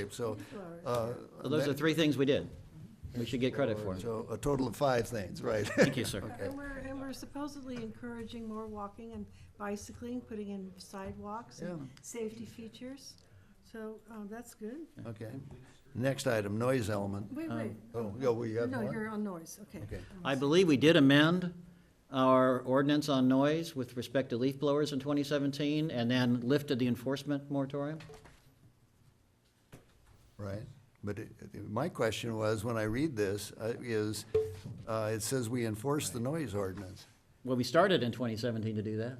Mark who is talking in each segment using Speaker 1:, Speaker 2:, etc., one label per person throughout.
Speaker 1: landscape, so. uh,
Speaker 2: So those are
Speaker 1: that-
Speaker 2: three things we did. We should get credit for.
Speaker 1: So a total of five things, right.
Speaker 2: Thank you, sir.
Speaker 1: Okay.
Speaker 3: And we're, and we're supposedly encouraging more walking and bicycling, putting in sidewalks and safety features. So, um, that's good.
Speaker 1: Okay. Next item, noise element.
Speaker 3: Wait, wait,
Speaker 1: Oh, yeah, we have
Speaker 3: no,
Speaker 1: one?
Speaker 3: you're on noise, okay. Um,
Speaker 1: Okay.
Speaker 2: I believe we did amend our ordinance on noise with respect to leaf blowers in 2017, and then lifted the enforcement moratorium.
Speaker 1: Right. But it- it- my question was, when I read this, uh, is, uh, it says we enforce the noise ordinance.
Speaker 2: Well, we started in 2017 to do that.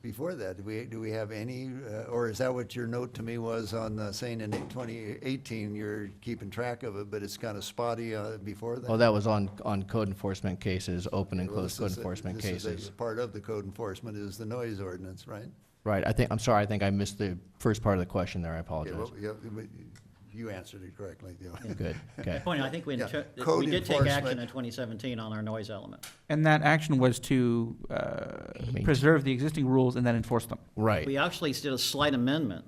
Speaker 1: Before that, do we, do we have any, uh, or is that what your note to me was on uh, saying in 2018, you're keeping track of it, but it's kind of spotty uh, before that?
Speaker 4: Oh, that was on, on code enforcement cases, open and
Speaker 1: Well,
Speaker 4: closed
Speaker 1: this
Speaker 4: code
Speaker 1: is a-
Speaker 4: enforcement
Speaker 1: this is a
Speaker 4: cases.
Speaker 1: Part of the code enforcement is the noise ordinance, right?
Speaker 4: Right, I think, I'm sorry, I think I missed the first part of the question there, I
Speaker 1: Yeah, well,
Speaker 4: apologize.
Speaker 1: yeah, but You answered it correctly, yeah.
Speaker 4: Good, okay.
Speaker 2: Point, I think we,
Speaker 1: Yeah,
Speaker 2: inter-
Speaker 1: code
Speaker 2: we did take action
Speaker 1: enforcement.
Speaker 2: in 2017 on our noise element.
Speaker 5: And that action was to uh,
Speaker 4: Maintain.
Speaker 5: preserve the existing rules and then enforce them.
Speaker 4: Right,
Speaker 2: We actually did a slight amendment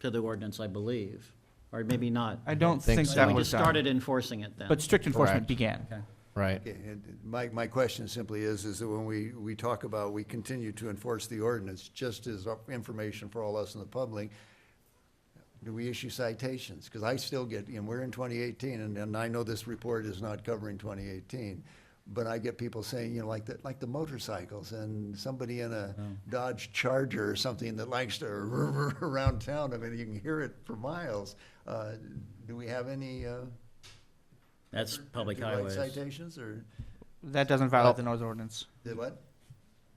Speaker 2: to the ordinance, I believe, or maybe not.
Speaker 5: I don't
Speaker 4: think
Speaker 5: think
Speaker 4: so.
Speaker 5: that
Speaker 2: We
Speaker 5: was
Speaker 2: just
Speaker 5: done.
Speaker 2: started enforcing it then.
Speaker 5: But strict enforcement
Speaker 4: Correct.
Speaker 5: began.
Speaker 4: right,
Speaker 1: Okay, and My, my question simply is, is that when we, we talk about, we continue to enforce the ordinance, just as information for all us in the public, do we issue citations? Because I still get, and we're in 2018, and, and I know this report is not covering 2018, but I get people saying, you know, like, the like the motorcycles, and somebody in a Dodge Charger or something that likes to around town, I mean, you can hear it for miles. Uh, Do we have any? uh,
Speaker 2: That's public
Speaker 1: do we write
Speaker 2: highways.
Speaker 1: Citations, or,
Speaker 5: That doesn't violate the noise ordinance.
Speaker 1: did what?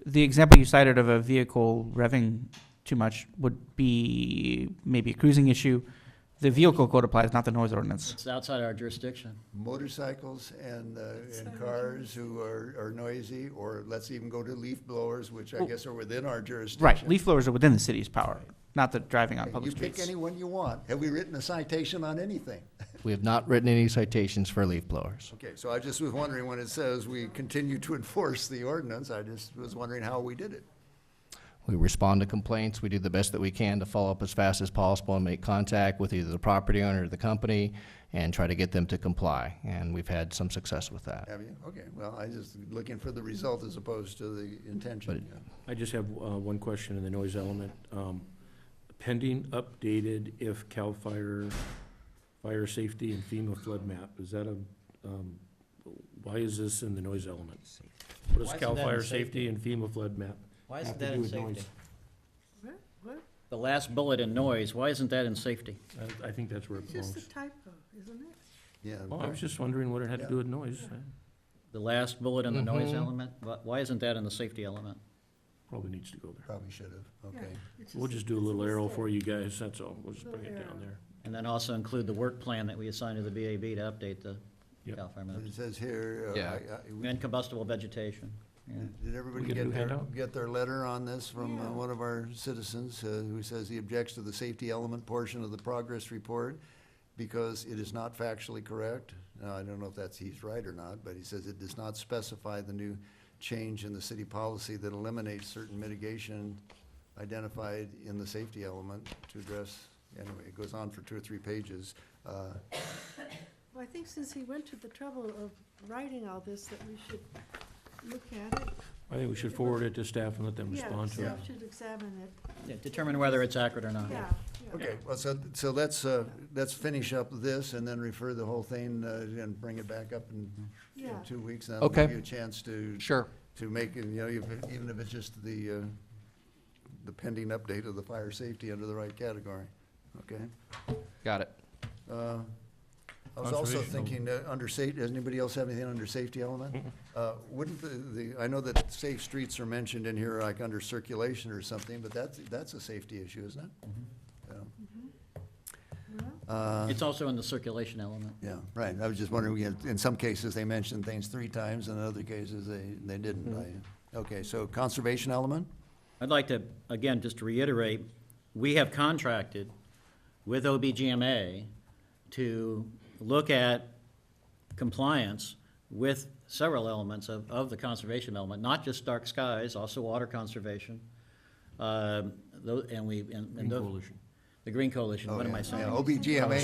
Speaker 5: The example you cited of a vehicle revving too much would be maybe a cruising issue. The vehicle code applies, not the noise ordinance.
Speaker 2: It's outside our jurisdiction.
Speaker 1: motorcycles and, uh, and cars who are, are noisy, or let's even go to leaf blowers, which I
Speaker 5: Well-
Speaker 1: guess are within our jurisdiction.
Speaker 5: Right, leaf blowers are within the city's power, not the driving on
Speaker 1: Okay,
Speaker 5: public
Speaker 1: You pick
Speaker 5: streets.
Speaker 1: anyone you want. Have we written a citation on anything?
Speaker 4: we have not written any citations for leaf blowers.
Speaker 1: Okay, so I just was wondering, when it says we continue to enforce the ordinance, I just was wondering how we did it.
Speaker 4: We respond to complaints, we do the best that we can to follow up as fast as possible and make contact with either the property owner or the company and try to get them to comply, and we've had some success with that.
Speaker 1: Have you? Okay, well, I just looking for the result as opposed to the intention.
Speaker 6: I just have uh, one question in the noise element. Um, Pending updated if CAL FIRE, fire safety and FEMA flood map, is that a, um, why is this in the noise element?
Speaker 2: Why
Speaker 6: What does
Speaker 2: isn't
Speaker 6: CAL
Speaker 2: that in
Speaker 6: FIRE
Speaker 2: safety?
Speaker 6: safety and FEMA flood map?
Speaker 2: Why
Speaker 6: isn't Have to that do in with safety? noise.
Speaker 3: What, what?
Speaker 2: The last bullet in noise, why isn't that in safety?
Speaker 6: I- I think that's where it
Speaker 3: It's just a
Speaker 6: belongs.
Speaker 3: typo, isn't it?
Speaker 1: Yeah.
Speaker 6: Well, I was just wondering what it had to do with noise. I-
Speaker 2: The last bullet in the noise
Speaker 6: Mm-hmm.
Speaker 4: Mhm.
Speaker 2: element, wh- why isn't that in the safety element?
Speaker 6: Probably needs to go there.
Speaker 1: Probably should have,
Speaker 3: Yeah,
Speaker 1: okay.
Speaker 3: it's
Speaker 6: We'll just do a
Speaker 3: it's
Speaker 6: little arrow
Speaker 3: mistake.
Speaker 6: for you guys, that's all. We'll just bring it
Speaker 3: Little arrow.
Speaker 6: down there.
Speaker 2: And then also include the work plan that we assigned to the BAB to update the
Speaker 6: Yep.
Speaker 2: Cal Fire
Speaker 1: But
Speaker 2: maps.
Speaker 1: It says here, uh,
Speaker 4: Yeah.
Speaker 1: I- I- we-
Speaker 2: And combustible vegetation. yeah.
Speaker 1: Did everybody
Speaker 6: We get a
Speaker 1: get
Speaker 6: new
Speaker 1: their,
Speaker 6: handout?
Speaker 1: get their letter on this from uh,
Speaker 3: Yeah.
Speaker 1: one of our citizens uh, who says he objects to the safety element portion of the progress report because it is not factually correct? Now, I don't know if that's, he's right or not, but he says it does not specify the new change in the city policy that eliminates certain mitigation identified in the safety element to address, anyway, it goes on for two or three pages. Uh,
Speaker 3: Well, I think since he went to the trouble of writing all this, that we should look at it.
Speaker 6: I think we should forward it to staff and let them
Speaker 3: Yeah,
Speaker 6: respond to it.
Speaker 3: so we should examine it,
Speaker 2: Yeah, Determine whether it's accurate or not.
Speaker 3: yeah, yeah.
Speaker 1: Uh-huh. Okay, well, so, so let's, uh, let's finish up this and then refer the whole thing uh, and bring it back up in in
Speaker 3: Yeah.
Speaker 1: two weeks. and That'll
Speaker 4: Okay.
Speaker 1: give you a chance to,
Speaker 4: Sure.
Speaker 1: to make, it, you know, if- even if it's just the, uh, the pending update of the fire safety under the right category, okay?
Speaker 4: Got it.
Speaker 1: Uh, I was also
Speaker 6: Conservation.
Speaker 1: thinking, uh, under safety, does anybody else have anything under safety element? Uh, Wouldn't the, the, I know that safe streets are mentioned in here, like under circulation or something, but that's, that's a safety issue, isn't it?
Speaker 3: Well,
Speaker 1: Uh,
Speaker 2: It's also in the circulation element.
Speaker 1: Yeah, right. I was just wondering, we had- in some cases, they mentioned things three times, and in other cases, they, they didn't.
Speaker 2: Mm-hmm.
Speaker 1: I- Okay, so conservation element?
Speaker 2: I'd like to, again, just to reiterate, we have contracted with OBGMA to look at compliance with several elements of, of the conservation element, not just dark skies, also water conservation. Um, tho- And we, and- and.
Speaker 6: Green
Speaker 2: tho-
Speaker 6: Coalition.
Speaker 2: The the Green Coalition,
Speaker 1: Oh,
Speaker 2: what am
Speaker 1: yeah,
Speaker 2: I
Speaker 1: yeah. Oh,
Speaker 2: saying?
Speaker 1: OBGMA